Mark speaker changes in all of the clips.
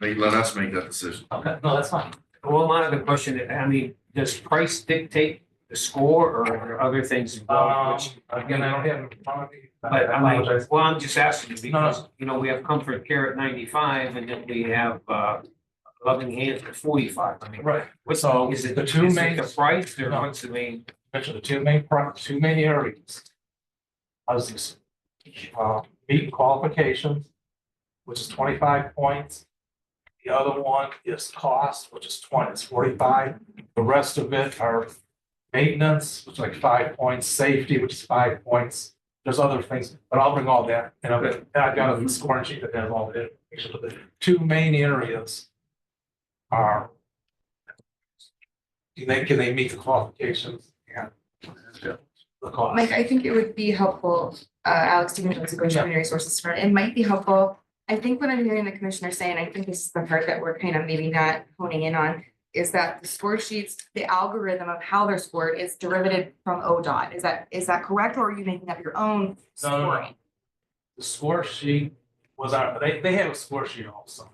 Speaker 1: They let us make that decision.
Speaker 2: Okay, no, that's fine.
Speaker 3: Well, my other question, I mean, does price dictate the score or are there other things
Speaker 2: Um,
Speaker 3: involved? which-
Speaker 2: again, I don't have it in front of me.
Speaker 3: But I mean,
Speaker 2: apologize.
Speaker 3: well, I'm just asking you
Speaker 2: No, no.
Speaker 3: because, you know, we have Comfort Care at ninety-five and then we have, uh, Loving Hands at forty-five. I mean,
Speaker 2: Right,
Speaker 3: what's,
Speaker 2: So,
Speaker 3: is it,
Speaker 2: the
Speaker 3: is
Speaker 2: two
Speaker 3: it
Speaker 2: main-
Speaker 3: the price or
Speaker 2: No.
Speaker 3: what's the main?
Speaker 2: which are the two main, pro- two main areas. How's this? Uh, meeting qualifications, which is twenty-five points. The other one is cost, which is twenty, it's forty-five. The rest of it are maintenance, which is like five points, safety, which is five points. There's other things, but I'll bring all that, and I've, and I've got a scoring sheet that has all the information, but the two main areas are. Do they, can they meet the qualifications? Yeah. The cost.
Speaker 4: Mike, I think it would be helpful, uh, Alex, to know to go to human resources for, it might be helpful. I think what I'm hearing the commissioner say, and I think this is the part that we're kind of maybe not honing in on, is that the score sheets, the algorithm of how they're scored is derivative from ODOT. Is that, is that correct, or are you making up your own
Speaker 2: No, no, no.
Speaker 4: scoring?
Speaker 2: The score sheet was our, they, they have a score sheet also.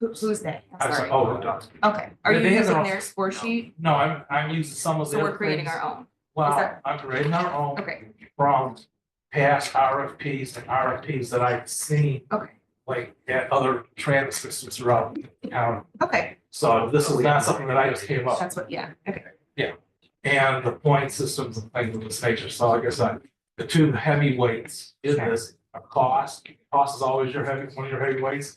Speaker 4: Who- Who's they?
Speaker 2: I
Speaker 4: I'm
Speaker 2: was
Speaker 4: sorry.
Speaker 2: like, oh, we're done.
Speaker 4: Okay, are
Speaker 2: They-
Speaker 4: you
Speaker 2: they have their
Speaker 4: using
Speaker 2: own-
Speaker 4: their score sheet?
Speaker 2: No, I'm, I'm using some of the.
Speaker 4: So we're creating our own.
Speaker 2: Well,
Speaker 4: that-
Speaker 2: I'm creating our own
Speaker 4: Okay,
Speaker 2: from past RFPs and RFPs that I've seen,
Speaker 4: okay,
Speaker 2: like at other transit systems throughout the county.
Speaker 4: okay.
Speaker 2: So this is not something that I just came up,
Speaker 4: That's what, yeah, okay.
Speaker 2: and the point systems and things of this nature, so like I said, the two heavyweights in this are cost. Cost is always your heavy, one of your heavyweights,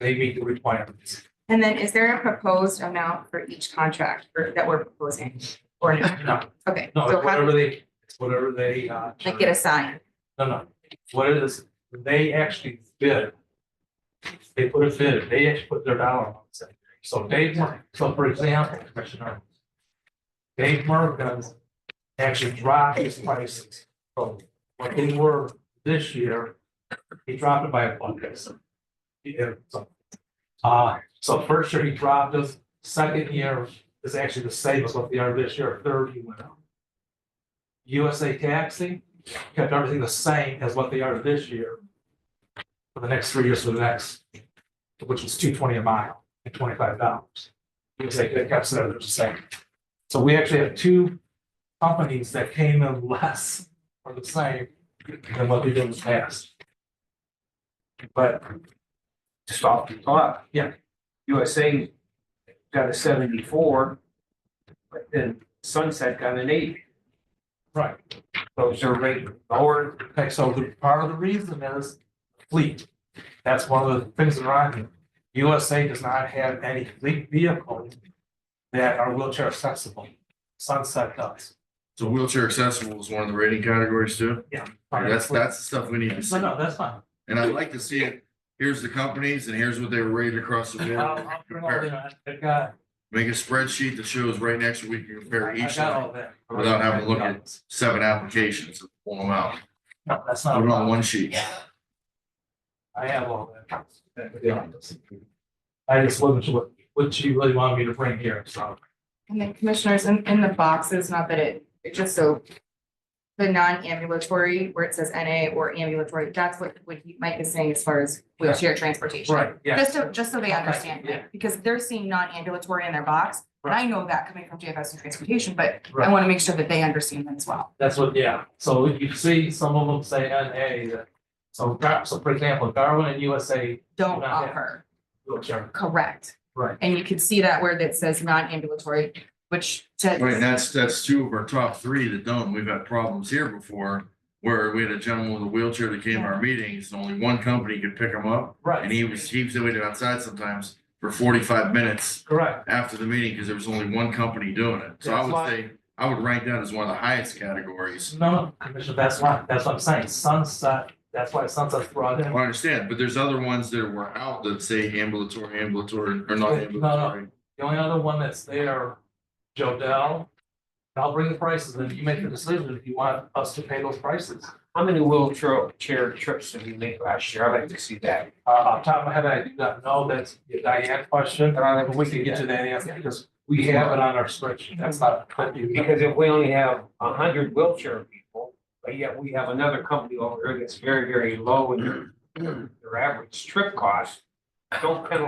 Speaker 2: they meet the requirements.
Speaker 4: And then is there a proposed amount for each contract for- that we're proposing? Or no?
Speaker 2: No,
Speaker 4: Okay,
Speaker 2: No,
Speaker 4: so
Speaker 2: it's
Speaker 4: how,
Speaker 2: whatever they, it's whatever they, uh.
Speaker 4: like get a sign,
Speaker 2: No, no, what it is, they actually bid. They put a bid, they actually put their dollar on it. So Dave, Mur- so for example, Commissioner. Dave Merkin actually dropped his prices from what they were this year. He dropped it by a buck. He did, so. Uh, so first year he dropped us, second year is actually the same as what they are this year, third he went up. USA Taxi kept everything the same as what they are this year. For the next three years for the next, which was two twenty a mile and twenty-five dollars. USA they kept it the same. So we actually have two companies that came in less or the same than what we did in the past. But
Speaker 3: Just off the top.
Speaker 2: Yeah.
Speaker 3: USA got a seventy-four. But then Sunset got an eighty.
Speaker 2: Right,
Speaker 3: So is their rate lower?
Speaker 2: okay, so the, part of the reason is fleet. That's one of the things that are on here. USA does not have any fleet vehicles that are wheelchair accessible. Sunset does.
Speaker 1: So wheelchair accessible is one of the rating categories too. That's, that's the stuff we need to see.
Speaker 2: No, no, that's fine.
Speaker 1: And I'd like to see it. Here's the companies and here's what they were rated across the
Speaker 2: I'll,
Speaker 1: board.
Speaker 2: I'll bring all that, I've got,
Speaker 1: Make a spreadsheet that shows right next week, you compare
Speaker 2: I've
Speaker 1: each
Speaker 2: got all that.
Speaker 1: Without having to look at seven applications, and pull them out.
Speaker 2: No, that's
Speaker 1: Put
Speaker 2: not, a
Speaker 1: 'em on
Speaker 2: problem.
Speaker 1: one sheet.
Speaker 2: I have all that. I just wasn't sure what, what you really wanted me to bring here, so.
Speaker 4: and then commissioners in, in the boxes, not that it, it just so. The non-ambulatory, where it says NA or ambulatory, that's what, what he- Mike is saying as far as wheelchair transportation.
Speaker 2: Right, yeah.
Speaker 4: Just so, just so they understand,
Speaker 2: Yeah.
Speaker 4: because they're seeing non-ambulatory in their box, and I know that coming from JFS and transportation, but I
Speaker 2: Right.
Speaker 4: wanna make sure that they understand that as well.
Speaker 2: That's what, yeah, so you see some of them say NA, that- so, Gar- so for example, Darwin and USA
Speaker 4: Don't
Speaker 2: Not yet.
Speaker 4: offer,
Speaker 2: wheelchair.
Speaker 4: correct,
Speaker 2: Right.
Speaker 4: and you can see that where that says non-ambulatory, which to.
Speaker 1: Right, and that's, that's two of our top three that don't. We've had problems here before where we had a gentleman with a wheelchair that came to our meetings and only one company could pick him up. And
Speaker 2: Right,
Speaker 1: he was, he was waiting outside sometimes for forty-five minutes
Speaker 2: correct,
Speaker 1: after the meeting because there was only one company doing it. So I
Speaker 2: That's
Speaker 1: would
Speaker 2: why-
Speaker 1: say, I would rank that as one of the highest categories.
Speaker 2: no, no, Commissioner, that's why, that's what I'm saying, Sunset, that's why Sunset's brought in.
Speaker 1: I understand, but there's other ones that were out that say ambulatory, ambulatory, or not
Speaker 2: No, no.
Speaker 1: ambulatory.
Speaker 2: The only other one that's there, Joe Dell. I'll bring the prices, then you make the decision if you want us to pay those prices.
Speaker 3: How many wheelchair chair trips did we make last year? I'd like to see that.
Speaker 2: Uh, off the top of my head, I do not know, that's a Diane question, but I think we can get to that answer because we have it on our spreadsheet, that's not.
Speaker 3: Because if we only have a hundred wheelchair people, but yet we have another company over here that's very, very low in their, their average trip cost. Don't penalize